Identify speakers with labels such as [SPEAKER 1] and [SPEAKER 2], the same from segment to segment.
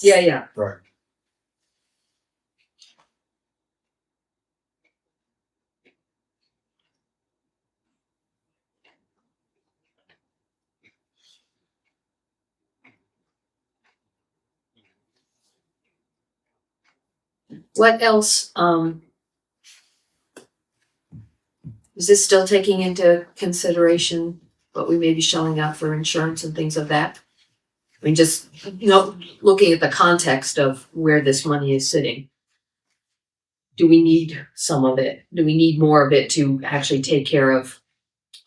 [SPEAKER 1] Yeah, yeah.
[SPEAKER 2] Right.
[SPEAKER 1] What else, um? Is this still taking into consideration what we may be shelling out for insurance and things of that? I mean, just, you know, looking at the context of where this money is sitting. Do we need some of it? Do we need more of it to actually take care of,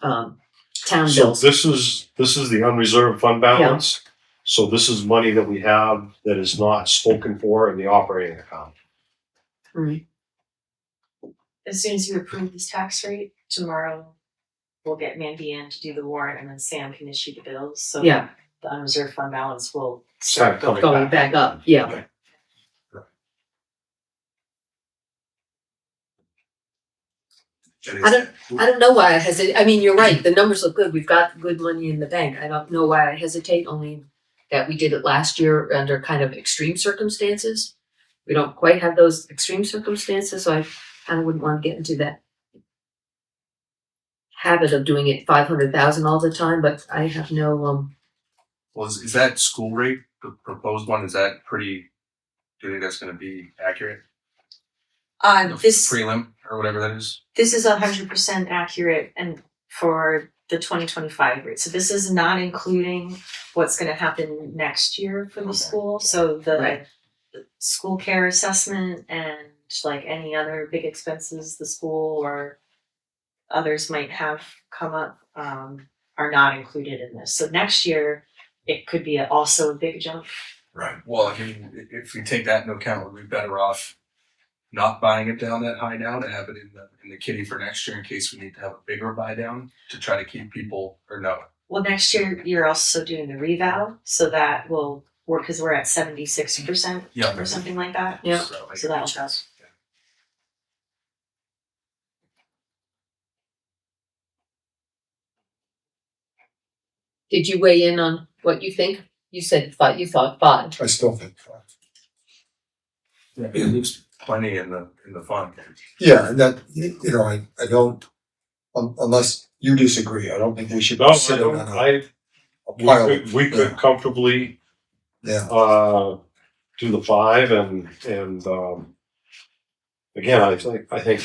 [SPEAKER 1] um, town
[SPEAKER 3] So
[SPEAKER 1] bills?
[SPEAKER 3] this is, this is the unreserved fund balance. So this is money that we have that is not spoken for in the operating account.
[SPEAKER 1] Mm,
[SPEAKER 4] as soon as you approve this tax rate, tomorrow we'll get Mandy in to do the warrant and then Sam can issue the bills, so
[SPEAKER 1] Yeah,
[SPEAKER 4] the unreserved fund balance will
[SPEAKER 3] Start coming
[SPEAKER 1] going
[SPEAKER 3] back.
[SPEAKER 1] back up, yeah. I don't, I don't know why I hesitate. I mean, you're right. The numbers look good. We've got good money in the bank. I don't know why I hesitate, only that we did it last year under kind of extreme circumstances. We don't quite have those extreme circumstances, so I kind of wouldn't want to get into that habit of doing it five hundred thousand all the time, but I have no, um,
[SPEAKER 2] Well, is, is that school rate, the proposed one, is that pretty, do you think that's gonna be accurate?
[SPEAKER 4] Uh, this,
[SPEAKER 2] Prelim or whatever that is?
[SPEAKER 4] this is hundred percent accurate and for the twenty twenty-five rate, so this is not including what's gonna happen next year for the
[SPEAKER 2] Okay.
[SPEAKER 4] school, so the
[SPEAKER 1] Right.
[SPEAKER 4] the school care assessment and like any other big expenses the school or others might have come up, um, are not included in this, so next year it could be also a big jump.
[SPEAKER 2] Right. Well, I mean, i- if we take that into account, would we be better off not buying it down that high now to have it in the, in the kitty for next year in case we need to have a bigger buy down to try to keep people or no?
[SPEAKER 4] Well, next year you're also doing the revow, so that will work because we're at seventy six percent
[SPEAKER 2] Yeah.
[SPEAKER 4] or something like that.
[SPEAKER 1] Yeah.
[SPEAKER 2] So like-
[SPEAKER 4] So that'll help.
[SPEAKER 1] did you weigh in on what you think? You said five, you thought five.
[SPEAKER 5] I still think five.
[SPEAKER 2] Yeah, It leaves plenty in the, in the fund.
[SPEAKER 5] Yeah, and that, you you know, I, I don't, un- unless you disagree, I don't think we should
[SPEAKER 3] No, I
[SPEAKER 5] sit
[SPEAKER 3] don't,
[SPEAKER 5] on a-
[SPEAKER 3] I,
[SPEAKER 5] a
[SPEAKER 3] we
[SPEAKER 5] pile.
[SPEAKER 3] could,
[SPEAKER 5] of-
[SPEAKER 3] we could comfortably,
[SPEAKER 5] Yeah,
[SPEAKER 3] uh, do the five and, and, um, again, I think, I think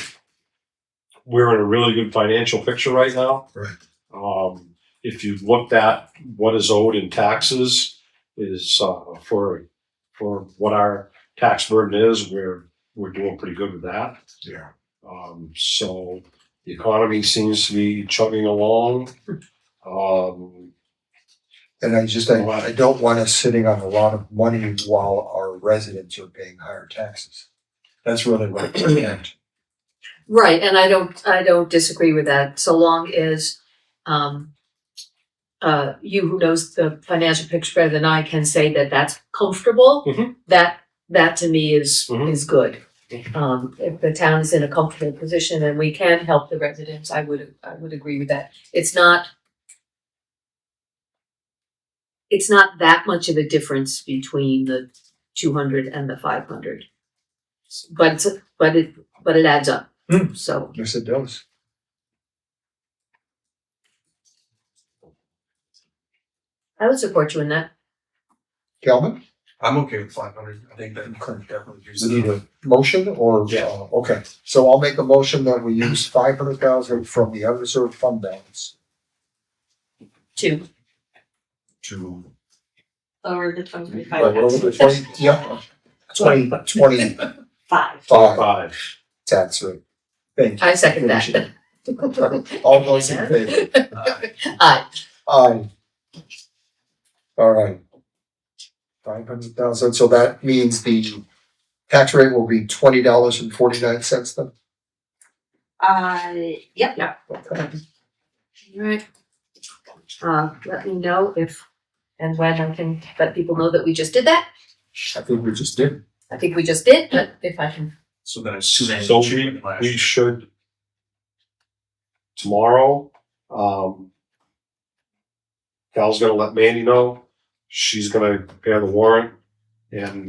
[SPEAKER 3] we're in a really good financial picture right now.
[SPEAKER 5] Right.
[SPEAKER 3] Um, if you looked at what is owed in taxes is, uh, for, for what our tax burden is, we're, we're doing pretty good with that.
[SPEAKER 5] yeah.
[SPEAKER 3] Um, so the economy seems to be chugging along. Um,
[SPEAKER 5] And I just, I, I don't want us sitting on a lot of money while our residents are paying higher taxes. That's really what I meant.
[SPEAKER 1] Right, and I don't, I don't disagree with that, so long as, um, uh, you who knows the financial picture better than I can say that that's comfortable.
[SPEAKER 3] Mhm.
[SPEAKER 1] That, that to me is,
[SPEAKER 3] Mhm.
[SPEAKER 1] is good.
[SPEAKER 3] Mhm.
[SPEAKER 1] Um, if the town is in a comfortable position and we can help the residents, I would, I would agree with that. It's not it's not that much of a difference between the two hundred and the five hundred. But, it's- but it, but it adds up,
[SPEAKER 5] Hmm.
[SPEAKER 1] so.
[SPEAKER 5] Yes, it does.
[SPEAKER 1] I would support you in that.
[SPEAKER 5] Calvin,
[SPEAKER 2] I'm okay with five hundred. I think that could definitely use
[SPEAKER 5] is it need
[SPEAKER 2] it.
[SPEAKER 5] a motion or?
[SPEAKER 3] Yeah.
[SPEAKER 5] uh, Okay, so I'll make a motion that we use five hundred thousand from the unreserved fund balance
[SPEAKER 1] Two.
[SPEAKER 5] to.
[SPEAKER 4] Lower the twenty twenty
[SPEAKER 5] Like,
[SPEAKER 4] five
[SPEAKER 5] what was it, twenty, yeah, twenty, twenty-five
[SPEAKER 4] five.
[SPEAKER 3] five.
[SPEAKER 5] tax rate. Thank you.
[SPEAKER 1] I second that.
[SPEAKER 5] All those in favor?
[SPEAKER 1] Aye.
[SPEAKER 5] Aye. All right. Five hundred thousand, so that means the tax rate will be twenty dollars and forty-nine cents then?
[SPEAKER 4] Uh, yep.
[SPEAKER 5] Okay.
[SPEAKER 1] Alright. Uh, let me know if and when I can let people know that we just did that.
[SPEAKER 5] I think we just did.
[SPEAKER 1] I think we just did, but if I can.
[SPEAKER 2] So then it's.
[SPEAKER 3] So we, we should tomorrow, um, Cal's gonna let Mandy know. She's gonna prepare the warrant. And